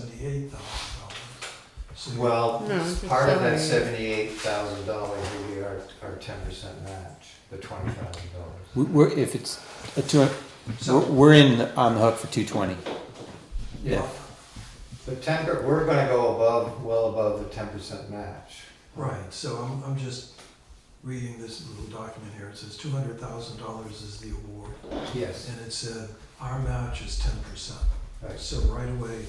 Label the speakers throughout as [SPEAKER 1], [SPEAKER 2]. [SPEAKER 1] seventy-eight thousand dollars. So
[SPEAKER 2] Well,
[SPEAKER 3] No, it's a
[SPEAKER 2] part of that
[SPEAKER 3] salary.
[SPEAKER 2] seventy-eight thousand dollars would be our, our ten percent match, the twenty thousand dollars.
[SPEAKER 4] We- We're, if it's a two, we're,
[SPEAKER 1] So-
[SPEAKER 4] we're in, the- on the hook for two twenty.
[SPEAKER 2] Yeah. The ten, per- we're gonna go above, well above the ten percent match.
[SPEAKER 1] Right, so I'm, I'm just reading this little document here. It says two hundred thousand dollars is the award,
[SPEAKER 2] Yes.
[SPEAKER 1] and it said our match is ten percent.
[SPEAKER 2] Right.
[SPEAKER 1] So right away,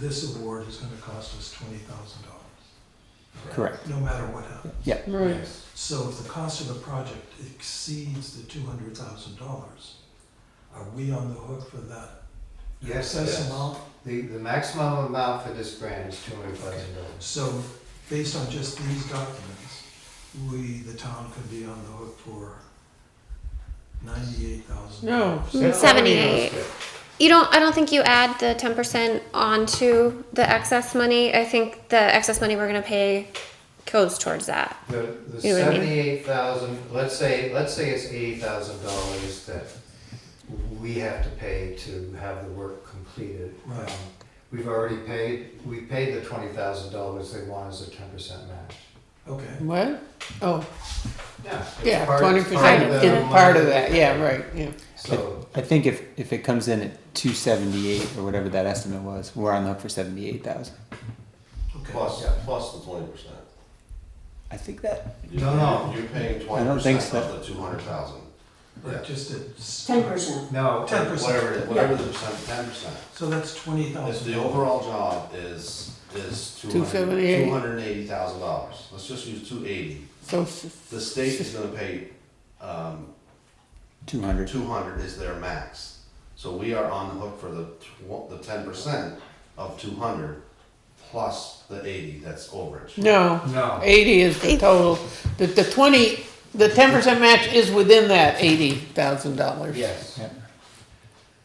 [SPEAKER 1] this award is gonna cost us twenty thousand dollars,
[SPEAKER 4] Correct.
[SPEAKER 1] no matter what happens.
[SPEAKER 3] Right.
[SPEAKER 2] Yes.
[SPEAKER 1] So if the cost of the project exceeds the two hundred thousand dollars, are we on the hook for that?
[SPEAKER 2] Yes,
[SPEAKER 1] excess
[SPEAKER 2] yes.
[SPEAKER 1] amount?
[SPEAKER 2] The, the maximum amount for this grant is two hundred thousand dollars.
[SPEAKER 1] So, based on just these documents, we, the town, could be on the hook for ninety-eight thousand.
[SPEAKER 3] No.
[SPEAKER 5] Seventy-eight. You don't, I don't think you add the ten percent onto the excess money. I think the excess money we're gonna pay goes towards that.
[SPEAKER 2] The, the
[SPEAKER 5] You know what I mean?
[SPEAKER 2] seventy-eight thousand, let's say, let's say it's eighty thousand dollars that we have to pay to have the work completed.
[SPEAKER 1] Right.
[SPEAKER 2] Um, We've already paid, we paid the twenty thousand dollars they want as a ten percent match.
[SPEAKER 1] Okay,
[SPEAKER 3] What? Oh,
[SPEAKER 2] Yeah. it's
[SPEAKER 3] yeah,
[SPEAKER 2] part-
[SPEAKER 3] twenty
[SPEAKER 2] it's part
[SPEAKER 3] percent
[SPEAKER 2] of the
[SPEAKER 3] is part of
[SPEAKER 2] money.
[SPEAKER 3] that, yeah, right, yeah.
[SPEAKER 2] So,
[SPEAKER 4] I think if, if it comes in at two seventy-eight or whatever that estimate was, we're on the hook for seventy-eight thousand.
[SPEAKER 1] okay.
[SPEAKER 6] Plus, yeah, plus the twenty percent.
[SPEAKER 4] I think that,
[SPEAKER 2] No, no.
[SPEAKER 6] You're paying
[SPEAKER 4] I
[SPEAKER 6] twenty
[SPEAKER 4] don't think
[SPEAKER 6] percent of the two hundred thousand.
[SPEAKER 1] But just it's.
[SPEAKER 7] Ten percent.
[SPEAKER 2] no,
[SPEAKER 1] Ten percent.
[SPEAKER 6] Whatever, it is, whatever the percent, ten percent.
[SPEAKER 1] So that's twenty
[SPEAKER 6] If
[SPEAKER 1] thousand.
[SPEAKER 6] the overall job is, is two hundred,
[SPEAKER 3] 278.
[SPEAKER 6] two hundred and eighty thousand dollars, let's just use two eighty.
[SPEAKER 3] So, s-
[SPEAKER 6] The state is gonna pay, um,
[SPEAKER 4] two hundred.
[SPEAKER 6] two hundred is their max. So we are on the hook for the tw- the ten percent of two hundred plus the eighty that's overage.
[SPEAKER 3] no,
[SPEAKER 2] no.
[SPEAKER 3] eighty is the
[SPEAKER 5] Eight.
[SPEAKER 3] total, the, the twenty, the ten percent match is within that eighty thousand dollars.
[SPEAKER 2] Yes.
[SPEAKER 4] Yeah.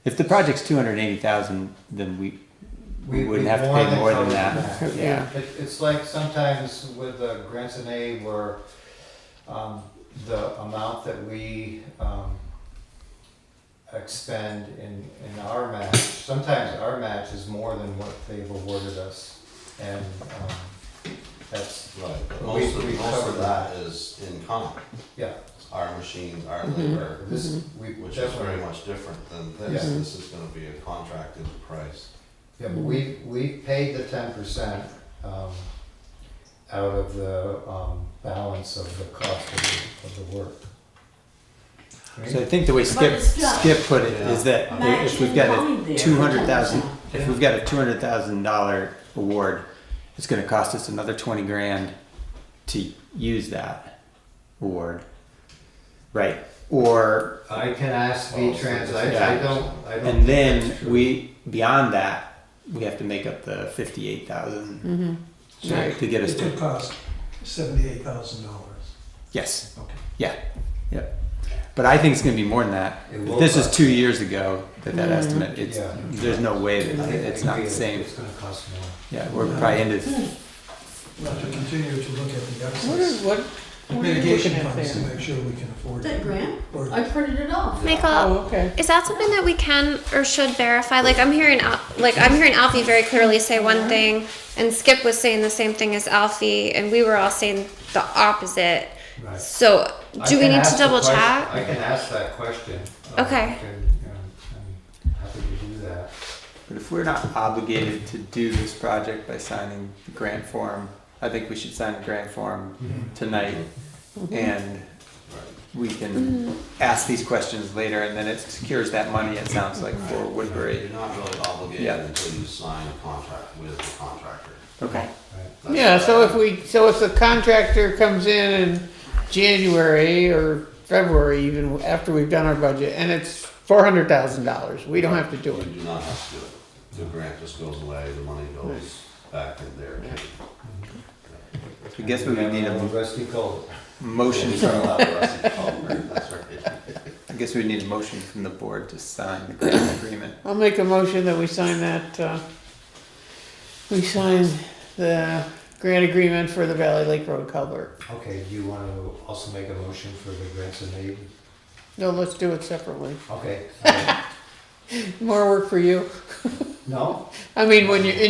[SPEAKER 4] If the project's two hundred and eighty thousand, then we, we
[SPEAKER 2] We-
[SPEAKER 4] wouldn't
[SPEAKER 2] we
[SPEAKER 4] have to pay
[SPEAKER 2] more
[SPEAKER 4] more
[SPEAKER 2] than
[SPEAKER 4] than
[SPEAKER 2] covered
[SPEAKER 4] that.
[SPEAKER 2] that.
[SPEAKER 4] Yeah.
[SPEAKER 2] It, it's like sometimes with uh, grants and aid where, um, the amount that we, um, expend in, in our match, sometimes our match is more than what they've awarded us. And, um, that's,
[SPEAKER 6] Right, but
[SPEAKER 2] We-
[SPEAKER 6] most
[SPEAKER 2] we
[SPEAKER 6] of, most
[SPEAKER 2] covered
[SPEAKER 6] of that is in common,
[SPEAKER 2] yeah,
[SPEAKER 6] our machines, our
[SPEAKER 3] Mm-hmm.
[SPEAKER 6] labor.
[SPEAKER 2] this, we
[SPEAKER 6] Which is very
[SPEAKER 2] definitely,
[SPEAKER 6] much different than this,
[SPEAKER 2] Yeah.
[SPEAKER 6] this is gonna be a contracted price.
[SPEAKER 2] yeah, but we, we paid the ten percent, um, out of the, um, balance of the cost of, the- of the work.
[SPEAKER 4] So I think the way Skip,
[SPEAKER 7] it's not-
[SPEAKER 4] Skip put it is that
[SPEAKER 7] Match
[SPEAKER 4] if we've got
[SPEAKER 7] in line
[SPEAKER 4] a
[SPEAKER 7] there.
[SPEAKER 4] two hundred thousand,
[SPEAKER 7] Yeah.
[SPEAKER 4] if we've got a two hundred thousand dollar award, it's gonna cost us another twenty grand to use that award. Right, or,
[SPEAKER 2] I can ask V-Trans, I, I don't, I don't.
[SPEAKER 4] and
[SPEAKER 2] think
[SPEAKER 4] then
[SPEAKER 2] that's
[SPEAKER 4] we, beyond that, we have to make up the fifty-eight thousand
[SPEAKER 3] Mm-hmm,
[SPEAKER 4] to to get us
[SPEAKER 1] It could
[SPEAKER 4] to,
[SPEAKER 1] cost seventy-eight thousand dollars.
[SPEAKER 4] yes,
[SPEAKER 1] Okay.
[SPEAKER 4] yeah, yeah. But I think it's gonna be more than that.
[SPEAKER 2] It
[SPEAKER 4] If
[SPEAKER 2] will
[SPEAKER 4] This is
[SPEAKER 2] cost.
[SPEAKER 4] two years ago that that estimate, it's,
[SPEAKER 2] Yeah.
[SPEAKER 4] there's no way
[SPEAKER 2] true. I
[SPEAKER 4] that
[SPEAKER 2] think
[SPEAKER 4] it's not the
[SPEAKER 2] it's-
[SPEAKER 4] same.
[SPEAKER 2] It's gonna cost more.
[SPEAKER 4] Yeah, we're probably into
[SPEAKER 1] We'll have to continue to look at the
[SPEAKER 3] what are,
[SPEAKER 1] excess
[SPEAKER 3] what, what are you
[SPEAKER 1] mitigation
[SPEAKER 3] looking at
[SPEAKER 1] funds to
[SPEAKER 3] there?
[SPEAKER 1] make sure we can afford.
[SPEAKER 7] That
[SPEAKER 1] it.
[SPEAKER 7] grant,
[SPEAKER 1] Or-
[SPEAKER 7] I printed it off.
[SPEAKER 5] Michael,
[SPEAKER 3] Oh, okay,
[SPEAKER 5] is that something that we can or should verify? Like I'm hearing, Al- like I'm hearing Alfie very clearly say one thing, and Skip was saying the same thing as Alfie, and we were all saying the opposite.
[SPEAKER 2] Right.
[SPEAKER 5] So,
[SPEAKER 2] I
[SPEAKER 5] do we
[SPEAKER 2] can
[SPEAKER 5] need
[SPEAKER 2] ask
[SPEAKER 5] to
[SPEAKER 2] the
[SPEAKER 5] double
[SPEAKER 2] question-
[SPEAKER 5] check?
[SPEAKER 2] I can ask that question. Uh,
[SPEAKER 5] Okay.
[SPEAKER 2] I can, you know, I'm happy to do that.
[SPEAKER 4] But if we're not obligated to do this project by signing the grant form, I think we should sign the grant form
[SPEAKER 2] Mm-hmm.
[SPEAKER 4] tonight Mm-hmm. and we can ask these questions later and then it secures that money, it sounds like, for
[SPEAKER 6] You're
[SPEAKER 4] Woodbury.
[SPEAKER 6] not really obligated
[SPEAKER 4] Yeah.
[SPEAKER 6] until you sign a contract with the contractor.
[SPEAKER 4] Okay.
[SPEAKER 2] Right.
[SPEAKER 6] That's
[SPEAKER 3] yeah, so
[SPEAKER 6] what I-
[SPEAKER 3] if we, so if the contractor comes in in January or February even, after we've done our budget, and it's four hundred thousand dollars, we don't have to do it.
[SPEAKER 6] You do not have to do it, the grant just goes away, the money goes back in there.
[SPEAKER 4] I guess we would need
[SPEAKER 2] Uh,
[SPEAKER 4] a
[SPEAKER 2] Rusty Cole.
[SPEAKER 4] motion from,
[SPEAKER 6] That's right.
[SPEAKER 4] I guess we need a motion from the board to sign the grant agreement.
[SPEAKER 3] I'll make a motion that we sign that, uh, we sign the grant agreement for the Valley Lake Road culvert.
[SPEAKER 2] Okay, do you want to also make a motion for the grants and aid?
[SPEAKER 3] No, let's do it separately.
[SPEAKER 2] Okay. all right.
[SPEAKER 3] More work for you.
[SPEAKER 2] No?
[SPEAKER 3] I mean, when you, in